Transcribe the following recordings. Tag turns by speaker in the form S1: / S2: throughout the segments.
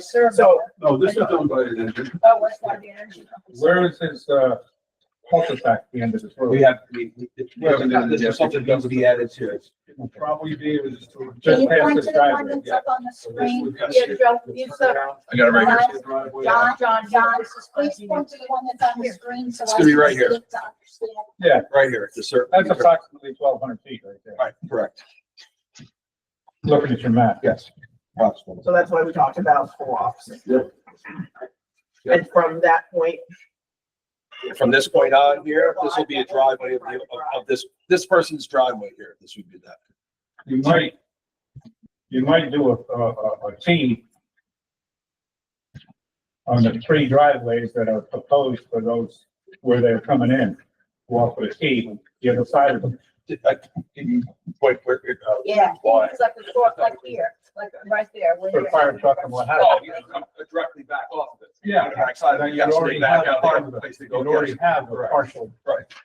S1: So,
S2: So, no, this is owned by an engineer.
S1: oh, what's that, the energy company?
S3: Where is his, uh, cul-de-sac, the end of this
S4: We
S3: road?
S4: have, we, we- this is something that would be added to.
S3: It will probably be, it was
S1: Can
S3: just.
S1: you
S3: just past
S1: point to
S3: this
S1: the
S3: driveway,
S1: one that's
S3: yeah.
S1: up on the
S3: So this
S1: screen?
S3: would be-
S1: Yeah, Joe, you
S3: Turn
S1: said,
S3: around,
S4: I got it right here.
S3: past the driveway.
S1: John, John, John, just please point to the one that's on the screen so
S4: It's
S1: I
S4: gonna be
S1: can
S4: right here.
S1: see it to understand.
S3: Yeah,
S4: Right here, the circle.
S3: that's approximately twelve hundred feet right there,
S4: Right, correct.
S3: looking at your map.
S4: Yes. Possible.
S5: So that's why we talked about co-ops.
S2: Yep.
S5: And from that point,
S4: From this point on here, this will be a driveway of, the- of, of this, this person's driveway here. This would be that.
S3: You might, you might do a, a, a- a T on the three driveways that are proposed for those where they're coming in, walk with a T, the other side of them.
S4: Did I, can you point where, uh,
S1: Yeah,
S4: why?
S1: it's like the short, like here, like right there. where
S3: For the
S1: you're-
S3: fire truck and what have
S4: Oh, you come directly back off of it.
S3: Yeah.
S4: Backside, of it,
S3: You'd
S4: you have to
S3: already
S4: stay back
S3: have
S4: out,
S3: part
S4: there,
S3: of
S4: the
S3: it.
S4: place to
S3: You
S4: go.
S3: already
S4: Yes,
S3: have a
S4: correct.
S3: partial,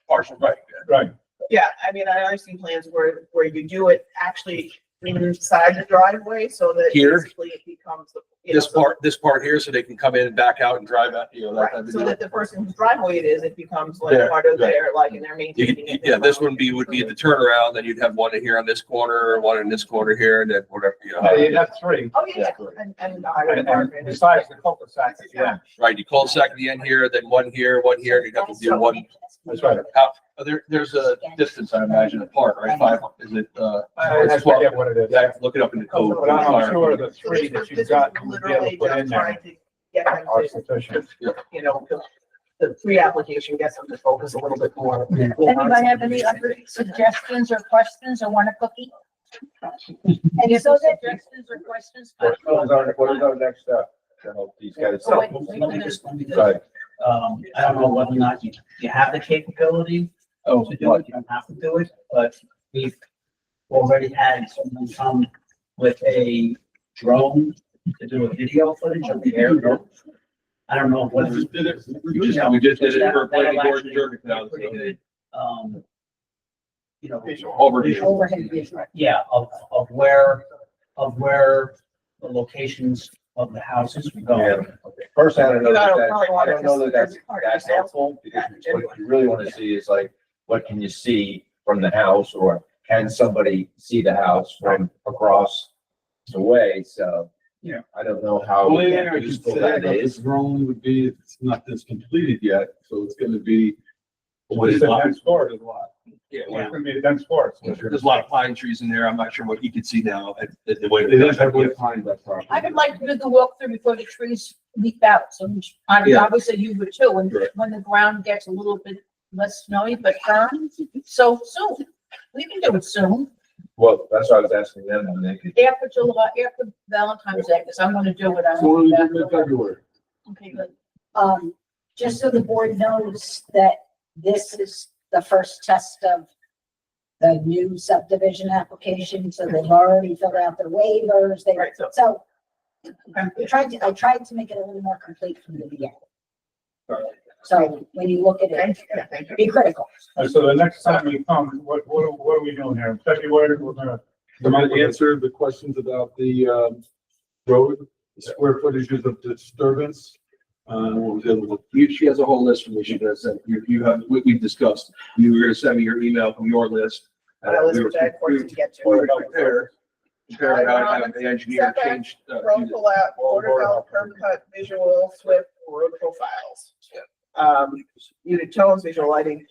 S4: Partial, right,
S3: right,
S5: yeah, I mean, I, I've seen plans where, where you do it actually inside the driveway so that
S4: Here.
S5: basically it becomes. the-
S4: yeah.
S5: you know,
S4: This part, this part here, so they can come in and back out and drive out, you know, that type
S5: Right,
S4: of
S5: so
S4: deal.
S5: that the person whose driveway it is, it becomes like
S4: There,
S5: part of
S4: right.
S5: their, like, and they're
S4: You
S5: maintaining.
S4: could,
S5: it.
S4: yeah, this one be, would be the turnaround, then you'd have one here on this corner, one in this corner here, and then whatever, you
S3: Yeah, you'd
S4: know.
S3: have three,
S5: Oh, yeah,
S4: Yeah, correct.
S5: and, and the highway
S3: and, and
S5: department.
S3: besides the cul-de-sac at the end.
S4: Right, you call second the end here, then one here, one here, and you'd have to do one.
S3: That's right.
S4: out- There, there's a distance, I imagine, apart, right? Five, is it, uh,
S3: I I
S4: it's twelve?
S3: forget what it is.
S4: Yeah, I have to look it up in the code.
S3: But I'm sure the
S5: So
S3: three
S5: this was-
S3: that
S5: this
S3: you've
S5: was
S3: got, you'll be able
S5: literally
S3: to put in
S5: just
S3: there
S5: trying to Get them
S3: are
S5: to,
S3: sufficient.
S5: you know, the- the pre-application gets them to focus a little bit more.
S1: Anybody have any other suggestions or questions or want a cookie? And so suggestions or questions?
S3: What is our, what is our next step? to help these guys?
S1: Oh, wait,
S6: Let
S1: wait,
S6: me
S1: wait.
S6: just- let me just-
S3: Sorry.
S6: Um, I don't know whether or not you, you have the capability
S4: Oh,
S6: to do
S4: what?
S6: it, you don't have to do it, but we've already had someone come with a drone to do a video footage of the air. I don't know whether.
S4: We just did it. We just did it for planning board and jury now.
S6: Pretty good, um, You know,
S4: Overview.
S1: Overhead vision.
S6: yeah, of, of where, of where the locations of the houses we go.
S7: First, I don't know
S5: You know, I
S7: that,
S5: don't
S7: that-
S5: probably
S7: I
S5: want
S7: don't know
S5: to-
S7: that that's,
S5: that's part of
S7: that's
S5: it.
S7: helpful, because what you really wanna see is like, what can you see from the house, or can somebody see the house from across the way, so.
S3: Yeah.
S7: I don't know
S2: Well,
S7: how
S2: yeah, I could
S7: useful
S2: say
S7: that
S2: that
S7: is.
S2: is wrong would be, if it's not this completed yet, so it's gonna be. What
S3: It's
S2: is
S3: a
S2: lot?
S3: dense forest, a lot.
S4: Yeah,
S3: It's gonna be a dense forest.
S4: There's a lot of pine trees in there. I'm not sure what you can see now at, at the way.
S2: It is heavily pine that property.
S1: I would like to do the walkthrough before the trees leaf out, so we- I mean,
S4: Yeah.
S1: obviously you would too, when,
S4: Right.
S1: when the ground gets a little bit less snowy, but firm, so soon. We can do it soon,
S7: Well, that's what I was asking them, and they could,
S1: after July, after Valentine's Day, because I'm gonna do it
S2: So what do
S1: on.
S2: we do in February?
S1: Okay, good. Um, just so the board knows that this is the first test of the new subdivision application, so they've already filled out their waivers, they,
S5: Right, so
S1: so I tried to, I tried to make it a little more complete from the beginning. So when you look at it,
S5: Thank you, yeah, thank you.
S1: be critical.
S3: And Uh, so the next time we come, what, what, are- what are we doing here? In February, we're gonna,
S2: Am I answer the questions about the, um, road, square footages of disturbance? Uh, what was the other one?
S4: You, she has a whole list from me. She does that. You, you have, we, we've discussed. You were gonna send me your email from your list.
S5: But I was,
S4: We were-
S5: I forced to get to.
S4: we were gonna compare- compare
S5: Right,
S4: how to
S5: um,
S4: have the engineer
S5: setback,
S4: change. uh,
S5: Road
S4: do
S5: pullout,
S4: Well,
S5: border
S4: border
S5: belt, curb cut, visual, SWIP, road profiles. Um, unit tones, visual lighting,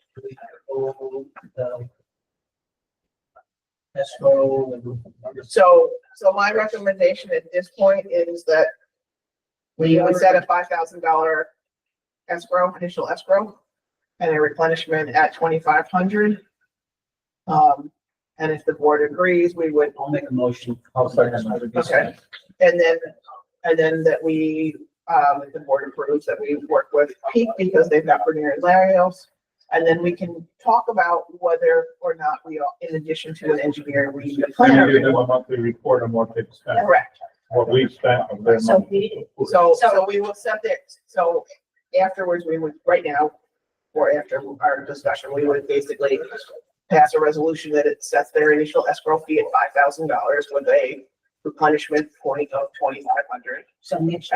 S6: Escrow and
S5: so, so my recommendation at this point is that we would set a five thousand dollar escrow, initial escrow, and a replenishment at twenty-five hundred. Um, and if the board agrees, we would,
S6: I'll make a motion.
S5: Okay. and then, and then that we, um, if the board approves that we work with Peak because they've got Bernier and Larios. And then we can talk about whether or not we are, in addition to an engineer, we need a
S3: then we give them
S5: planner.
S3: a monthly report on what they've spent,
S5: Correct.
S3: what we've spent on their
S1: So
S3: money.
S1: we,
S5: So,
S1: So-
S5: so we will set that, so afterwards, we would, right now, or after our discussion, we would basically pass a resolution that it sets their initial escrow fee at five thousand dollars with a replenishment point of twenty-five hundred.
S8: So next